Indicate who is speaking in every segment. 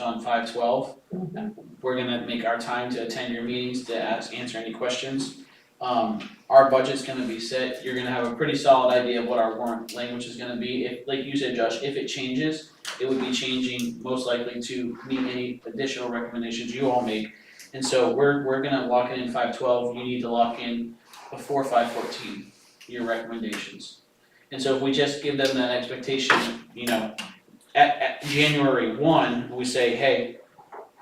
Speaker 1: on five twelve. We're gonna make our time to attend your meetings to ask, answer any questions. Um, our budget's gonna be set, you're gonna have a pretty solid idea of what our warrant language is gonna be, if, like you said, Josh, if it changes, it would be changing most likely to meet any additional recommendations you all make. And so we're, we're gonna lock in in five twelve, you need to lock in before five fourteen, your recommendations. And so if we just give them that expectation, you know, at, at January one, we say, hey,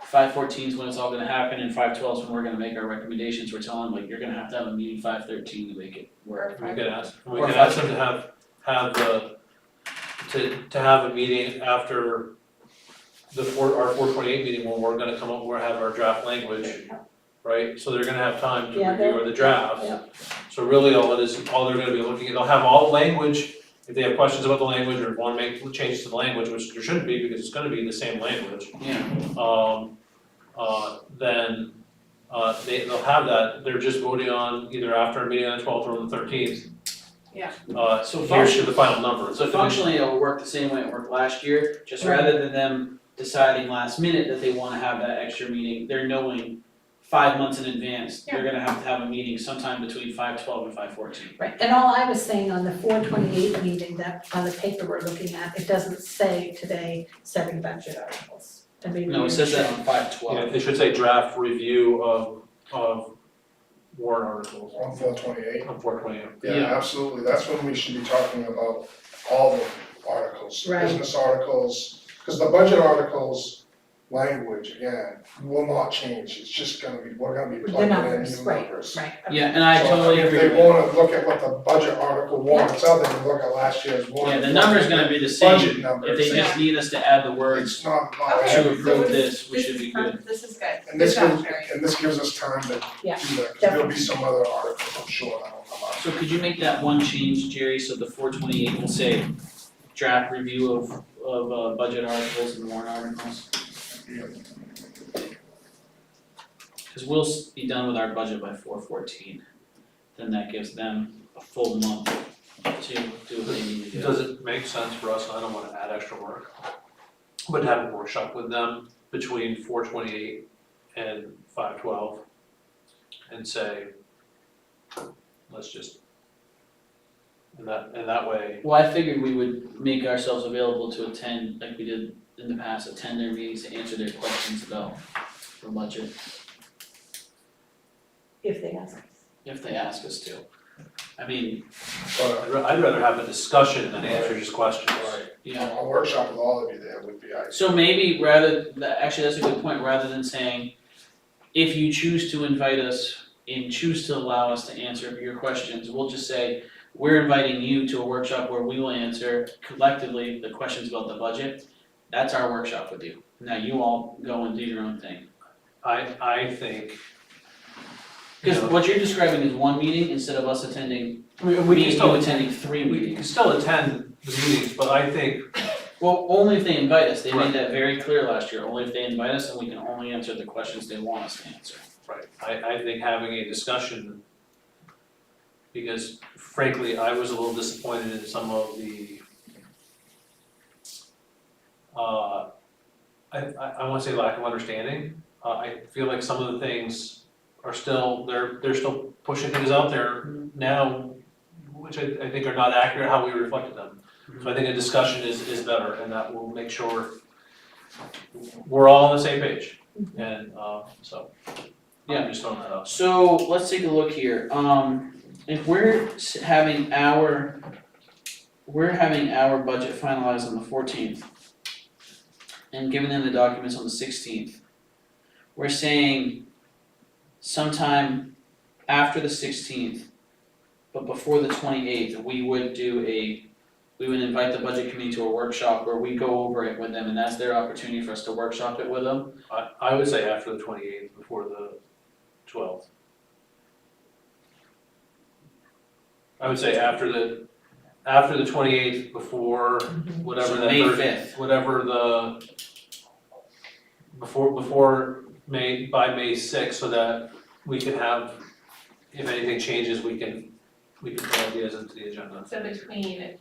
Speaker 1: five fourteen is when it's all gonna happen and five twelve is when we're gonna make our recommendations, we're telling them, like, you're gonna have to have a meeting five thirteen to make it work.
Speaker 2: We could ask, we
Speaker 1: Or
Speaker 2: could
Speaker 1: five
Speaker 2: ask them to have, have the, to, to have a meeting after the four, our four twenty-eight meeting when we're gonna come up, we're have our draft language, right? So they're gonna have time to
Speaker 3: Yeah, they'll-
Speaker 2: review the draft.
Speaker 3: yeah.
Speaker 2: So really all it is, all they're gonna be looking at, they'll have all the language, if they have questions about the language or wanna make changes to the language, which there shouldn't be because it's gonna be the same language
Speaker 1: Yeah,
Speaker 2: um, uh, then, uh, they, they'll have that, they're just voting on either after a meeting on the twelfth or on the thirteenth.
Speaker 4: Yeah.
Speaker 2: Uh,
Speaker 1: So
Speaker 2: here's the final number.
Speaker 1: so functionally, it'll work the same way it worked last year, just rather than them deciding last minute that they wanna have that extra meeting, they're knowing five months in advance, they're gonna have to have a meeting sometime between five twelve and five fourteen.
Speaker 3: Right, and all I was saying on the four twenty-eight meeting that on the paper we're looking at, it doesn't say today seven budget articles. And maybe
Speaker 1: No,
Speaker 3: we
Speaker 1: it says that
Speaker 3: should.
Speaker 1: on five
Speaker 2: Yeah,
Speaker 1: twelve.
Speaker 2: it should say draft review of, of warrant articles
Speaker 5: On four twenty-eight,
Speaker 2: on four twenty-eight.
Speaker 1: Yeah.
Speaker 5: yeah, absolutely, that's when we should be talking about all the articles,
Speaker 3: Right.
Speaker 5: business articles. Cause the budget articles language, again, will not change, it's just gonna be, we're gonna be
Speaker 3: The
Speaker 5: plugging in new numbers.
Speaker 3: numbers, right, Right, okay.
Speaker 1: Yeah, and I
Speaker 5: So,
Speaker 1: totally agree
Speaker 5: If
Speaker 1: with
Speaker 5: they
Speaker 1: that.
Speaker 5: wanna look at what the budget article warrants, other than look at last year's
Speaker 1: Yeah,
Speaker 5: warrant.
Speaker 1: the number's gonna be the same,
Speaker 5: Budget
Speaker 1: if
Speaker 5: numbers,
Speaker 1: they just need us to add the words
Speaker 5: it's not about
Speaker 4: Okay.
Speaker 1: to
Speaker 5: everything.
Speaker 1: approve this, we should be
Speaker 4: This is,
Speaker 1: good.
Speaker 4: per- this is good.
Speaker 5: And this
Speaker 4: Good job,
Speaker 5: gives,
Speaker 4: Terry.
Speaker 5: and this gives us time to do
Speaker 3: Yeah,
Speaker 5: that, 'cause there'll be some other articles, I'm sure, that'll come up.
Speaker 1: So could you make that one change, Jerry, so the four twenty-eight will say draft review of, of, uh, budget articles and warrant articles? Cause we'll s- be done with our budget by four fourteen, then that gives them a full month to do what they need to do.
Speaker 2: Does it make sense for us, I don't wanna add extra work, but to have a workshop with them between four twenty-eight and five twelve? And say, let's just. And that, and that way,
Speaker 1: Well, I figured we would make ourselves available to attend, like we did in the past, attend their meetings to answer their questions about the budget,
Speaker 3: if they ask.
Speaker 1: if they ask us to. I mean,
Speaker 5: But uh,
Speaker 2: I'd ra- I'd rather have a discussion than answer just questions.
Speaker 1: you know,
Speaker 5: a workshop with all of you there would be ideal.
Speaker 1: So maybe rather, tha- actually, that's a good point, rather than saying, if you choose to invite us and choose to allow us to answer your questions, we'll just say, we're inviting you to a workshop where we will answer collectively the questions about the budget. That's our workshop with you. Now you all go and do your own thing.
Speaker 2: I, I think. you
Speaker 1: Because
Speaker 2: know,
Speaker 1: what you're describing is one meeting instead of us attending,
Speaker 2: We,
Speaker 1: me
Speaker 2: we
Speaker 1: and
Speaker 2: can
Speaker 1: you
Speaker 2: still,
Speaker 1: attending three
Speaker 2: we can
Speaker 1: meetings.
Speaker 2: still attend the meetings, but I think,
Speaker 1: Well, only if they invite us, they made
Speaker 2: Right.
Speaker 1: that very clear last year, only if they invite us and we can only answer the questions they want us to answer.
Speaker 2: right, I, I think having a discussion. Because frankly, I was a little disappointed in some of the. Uh, I, I, I wanna say lack of understanding, uh, I feel like some of the things are still, they're, they're still pushing things out there now. Which I, I think are not accurate how we reflected them. So I think a discussion is, is better, and that will make sure we're all on the same page, and, uh, so.
Speaker 1: Yeah.
Speaker 2: I'm just throwing that out.
Speaker 1: So let's take a look here, um, if we're s- having our, we're having our budget finalized on the fourteenth. And giving them the documents on the sixteenth. We're saying sometime after the sixteenth, but before the twenty-eighth, we would do a, we would invite the budget committee to a workshop where we go over it with them, and that's their opportunity for us to workshop it with them.
Speaker 2: I, I would say after the twenty-eighth, before the twelfth. I would say after the, after the twenty-eighth, before whatever
Speaker 1: So
Speaker 2: that
Speaker 1: May
Speaker 2: third-
Speaker 1: 5th.
Speaker 2: whatever the, before, before May, by May sixth, so that we can have, if anything changes, we can, we can put ideas into the agenda.
Speaker 4: So between,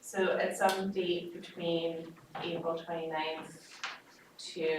Speaker 4: so at some date between April 29th to